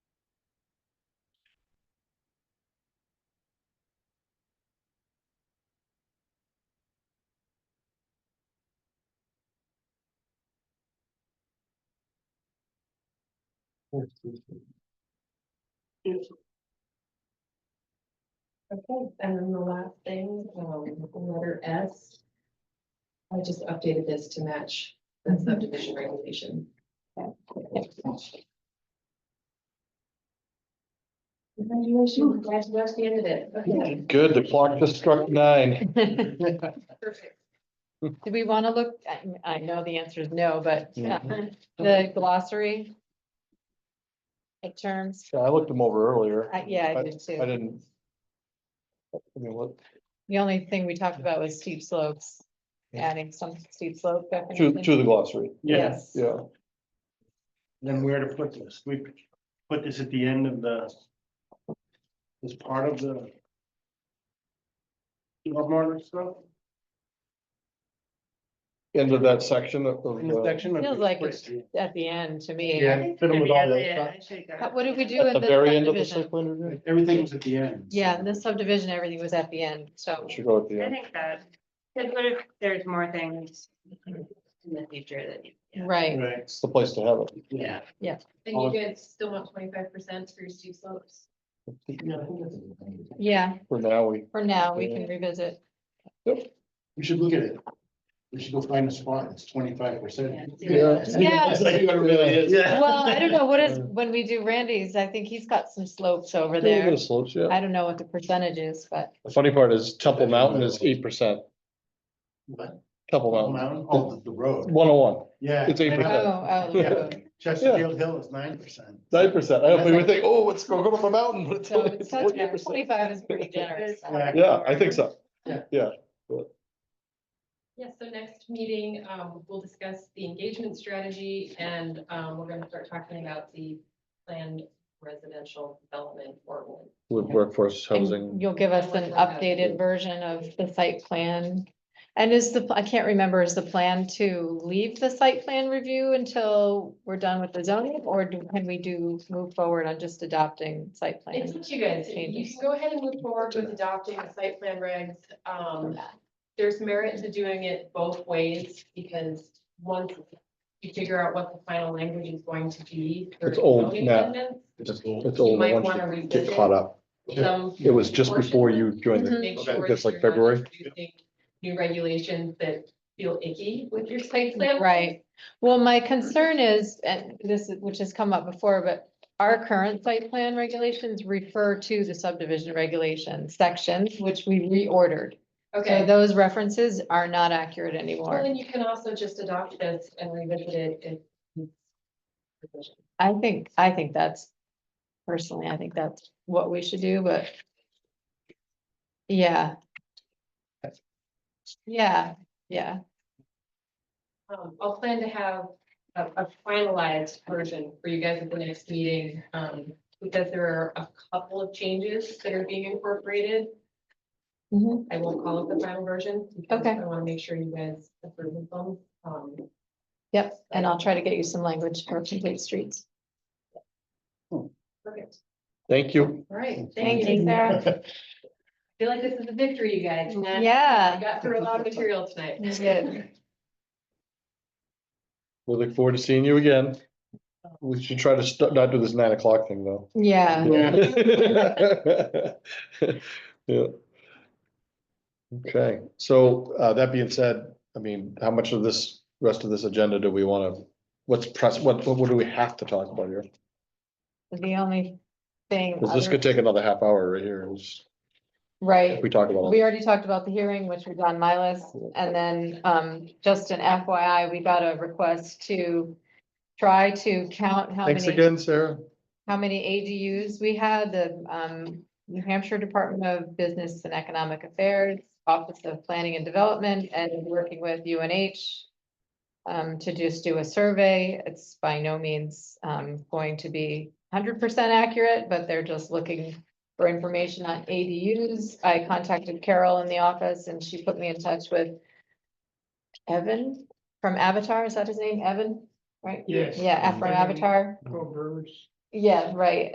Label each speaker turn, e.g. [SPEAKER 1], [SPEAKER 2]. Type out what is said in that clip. [SPEAKER 1] Okay, and then the last thing, um, letter S. I just updated this to match the subdivision regulation. Congratulations, that's that's the end of it. Okay,
[SPEAKER 2] Good, the clock just struck nine.
[SPEAKER 3] Did
[SPEAKER 1] perfect.
[SPEAKER 3] we want to look, I, I know the answer is no, but uh,
[SPEAKER 1] Mhm.
[SPEAKER 3] the glossary. Of terms,
[SPEAKER 2] Yeah, I looked them over earlier.
[SPEAKER 3] I- yeah, I
[SPEAKER 2] I-
[SPEAKER 3] did
[SPEAKER 2] I
[SPEAKER 3] too.
[SPEAKER 2] didn't. I mean, what-
[SPEAKER 3] The only thing we talked about was steep slopes,
[SPEAKER 2] Yeah.
[SPEAKER 3] adding some steep slope.
[SPEAKER 2] To,
[SPEAKER 3] definition.
[SPEAKER 2] to the glossary,
[SPEAKER 3] Yes.
[SPEAKER 2] yeah.
[SPEAKER 4] Then where to put this? We put this at the end of the. As part of the. Love Martin stuff
[SPEAKER 2] End of that section of, of,
[SPEAKER 4] in the
[SPEAKER 2] uh,
[SPEAKER 4] section. or
[SPEAKER 3] Feels like
[SPEAKER 4] just-
[SPEAKER 3] At the end, to me.
[SPEAKER 4] Yeah, fit them with all that
[SPEAKER 1] Yeah,
[SPEAKER 4] stuff.
[SPEAKER 1] I should've got
[SPEAKER 3] How-
[SPEAKER 1] it.
[SPEAKER 3] What did we do?
[SPEAKER 2] at
[SPEAKER 3] in
[SPEAKER 2] the very end of the
[SPEAKER 3] subdivision?
[SPEAKER 2] site plan review.
[SPEAKER 4] Like, Everything was at the end.
[SPEAKER 3] Yeah, in this subdivision, everything was at the end, so.
[SPEAKER 2] Should go at the
[SPEAKER 5] I
[SPEAKER 2] end.
[SPEAKER 5] think that, because what if there's more things in the future that you. yeah.
[SPEAKER 3] Right,
[SPEAKER 4] Right.
[SPEAKER 2] It's the place to have it.
[SPEAKER 4] Yeah.
[SPEAKER 1] And you guys still want twenty-five percent for your steep slopes?
[SPEAKER 3] yeah,
[SPEAKER 2] For now, we,
[SPEAKER 3] for now, we can revisit.
[SPEAKER 4] We should look at it. We should go find a spot that's twenty-five percent.
[SPEAKER 2] Yeah.
[SPEAKER 3] Yeah.
[SPEAKER 4] Yeah.
[SPEAKER 3] Well, I don't know, what is, when we do Randy's, I think he's got some slopes over
[SPEAKER 2] a little bit
[SPEAKER 3] there.
[SPEAKER 2] of slopes, yeah.
[SPEAKER 3] I don't know what the percentage is, but
[SPEAKER 2] The funny part is Temple Mountain is eight percent,
[SPEAKER 4] What?
[SPEAKER 2] Temple Mountain,
[SPEAKER 4] Mountain, oh, the- the road,
[SPEAKER 2] one oh one,
[SPEAKER 4] yeah.
[SPEAKER 2] It's 8%.
[SPEAKER 3] oh, oh, no.
[SPEAKER 4] Chesterfield Hill is nine percent.
[SPEAKER 2] nine percent. I hope we would think, oh, it's going up a mountain, but it's
[SPEAKER 3] So
[SPEAKER 2] only
[SPEAKER 3] it's- so it's-
[SPEAKER 2] forty percent.
[SPEAKER 3] twenty-five is pretty generous.
[SPEAKER 4] Yeah.
[SPEAKER 2] Yeah, I think so.
[SPEAKER 1] Yes, so next meeting, um, we'll discuss the engagement strategy and, um, we're gonna start talking about the planned residential development ordinance.
[SPEAKER 2] With workforce
[SPEAKER 3] And
[SPEAKER 2] housing,
[SPEAKER 3] You'll give us an updated version of the site plan. And is the, I can't remember, is the plan to leave the site plan review until we're done with the zoning? Or do- can we do, move forward on just adopting site plan?
[SPEAKER 1] It's up to you guys. You
[SPEAKER 3] changes.
[SPEAKER 1] can go ahead and move forward with adopting the site plan regs. Um, there's merit to doing it both ways because once you figure out what the final language is going to be. for
[SPEAKER 2] It's old
[SPEAKER 1] zoning
[SPEAKER 2] now.
[SPEAKER 1] amendments,
[SPEAKER 2] it's old
[SPEAKER 1] You
[SPEAKER 2] once
[SPEAKER 1] might
[SPEAKER 2] you
[SPEAKER 1] wanna
[SPEAKER 2] get
[SPEAKER 1] revisit
[SPEAKER 2] caught up.
[SPEAKER 1] some.
[SPEAKER 2] It was just before you joined the,
[SPEAKER 1] Make
[SPEAKER 2] I
[SPEAKER 1] sure
[SPEAKER 2] think that's
[SPEAKER 1] that
[SPEAKER 2] Mhm. like
[SPEAKER 1] you're not
[SPEAKER 2] February.
[SPEAKER 1] introducing New regulations that feel icky with your site plan.
[SPEAKER 3] Right, well, my concern is, and this, is- which has come up before, but our current site plan regulations refer to the subdivision regulation sections, which we reordered. So
[SPEAKER 1] Okay,
[SPEAKER 3] those references are not accurate
[SPEAKER 1] well,
[SPEAKER 3] anymore.
[SPEAKER 1] then you can also just adopt this and revisit it if. it's revision.
[SPEAKER 3] I think, I think that's, personally, I think that's what we should do, but. Yeah. Yeah, yeah,
[SPEAKER 1] Um, I'll plan to have a, a finalized version for you guys at the next meeting, um, because there are a couple of changes that are being incorporated.
[SPEAKER 3] Mhm.
[SPEAKER 1] I won't call it the final version. because
[SPEAKER 3] Okay.
[SPEAKER 1] I wanna make sure you guys approve of them, um,
[SPEAKER 3] yep, and I'll try to get you some language for complete streets.
[SPEAKER 1] perfect,
[SPEAKER 2] Thank you.
[SPEAKER 1] all right,
[SPEAKER 3] Thank
[SPEAKER 1] thank
[SPEAKER 3] you,
[SPEAKER 1] you. I
[SPEAKER 3] Sarah.
[SPEAKER 1] feel like this is a victory, you guys. and that-
[SPEAKER 3] Yeah.
[SPEAKER 1] I Got through a lot of material tonight.
[SPEAKER 3] You did.
[SPEAKER 2] We look forward to seeing you again. We should try to st- not do this nine o'clock thing though.
[SPEAKER 1] Uh,
[SPEAKER 3] Yeah.
[SPEAKER 2] Yeah. Okay, so uh, that being said, I mean, how much of this, rest of this agenda do we want to, what's press, what, what do we have to talk about here?
[SPEAKER 3] The only thing,
[SPEAKER 2] 'Cause this
[SPEAKER 3] other-
[SPEAKER 2] could take another half hour right here. It's-
[SPEAKER 3] right,
[SPEAKER 2] if We talk about,
[SPEAKER 3] we already talked about the hearing, which was on my list, and then, um, just an FYI, we got a request to try to count how
[SPEAKER 2] thanks
[SPEAKER 3] many,
[SPEAKER 2] again, Sarah.
[SPEAKER 3] how many ADUs we had, the, um, New Hampshire Department of Business and Economic Affairs, Office of Planning and Development, and working with UNH um, to just do a survey. It's by no means, um, going to be hundred percent accurate, but they're just looking for information on ADUs. I contacted Carol in the office and she put me in touch with Evan from Avatar. Is that his name? Evan, right?
[SPEAKER 4] Yes.
[SPEAKER 3] Yeah, from Avatar. Yeah, right.